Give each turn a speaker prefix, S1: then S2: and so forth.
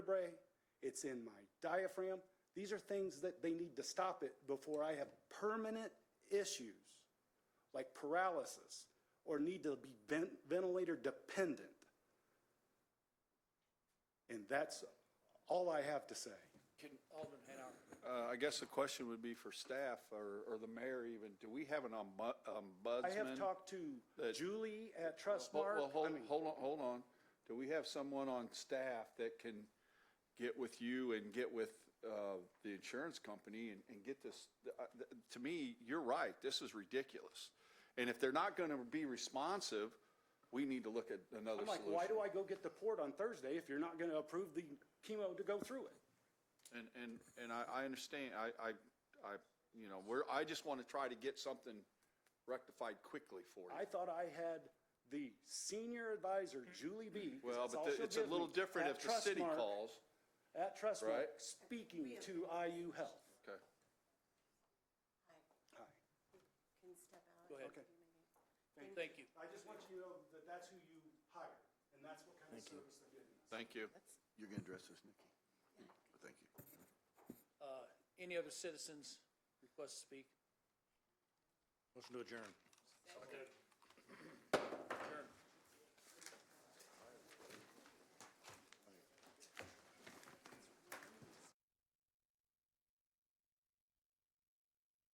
S1: vertebrae, it's in my diaphragm. These are things that they need to stop it before I have permanent issues like paralysis or need to be ven- ventilator dependent. And that's all I have to say.
S2: Can Alderman Hancock,
S3: Uh, I guess the question would be for staff or, or the mayor even, do we have an ombu- ombudsman?
S1: I have talked to
S3: that-
S1: Julie at
S3: Hol-
S1: Trustmark.
S3: Well, hold,
S1: I mean,
S3: hold on, hold on. Do we have someone on staff that can get with you and get with, uh, the insurance company and, and get this? uh, th- To me, you're right. This is ridiculous. And if they're not gonna be responsive, we need to look at another
S1: I'm like,
S3: solution.
S1: why do I go get the port on Thursday if you're not going to approve the chemo to go through it?
S3: And, and, and I, I understand, I, I, I, you know, we're, I just want to try to get something rectified quickly for
S1: I
S3: you.
S1: thought I had the senior advisor, Julie B. 'cause
S3: Well,
S1: that's
S3: but
S1: all
S3: the-
S1: she'll
S3: it's a
S1: give
S3: little
S1: me,
S3: different
S1: at
S3: if the city
S1: Trustmark-
S3: calls.
S1: At Trustmark,
S3: Right.
S1: speaking to IU Health.
S3: Okay.
S1: Hi.
S4: can step out.
S2: go ahead.
S1: Okay.
S2: Thank you.
S1: I just want you to know that that's who you hire, and that's what kind of service they're giving us.
S3: Thank you.
S5: You're gonna address this, Nikki? Thank you.
S2: Uh, Any other citizens request to speak?
S6: Motion to adjourn.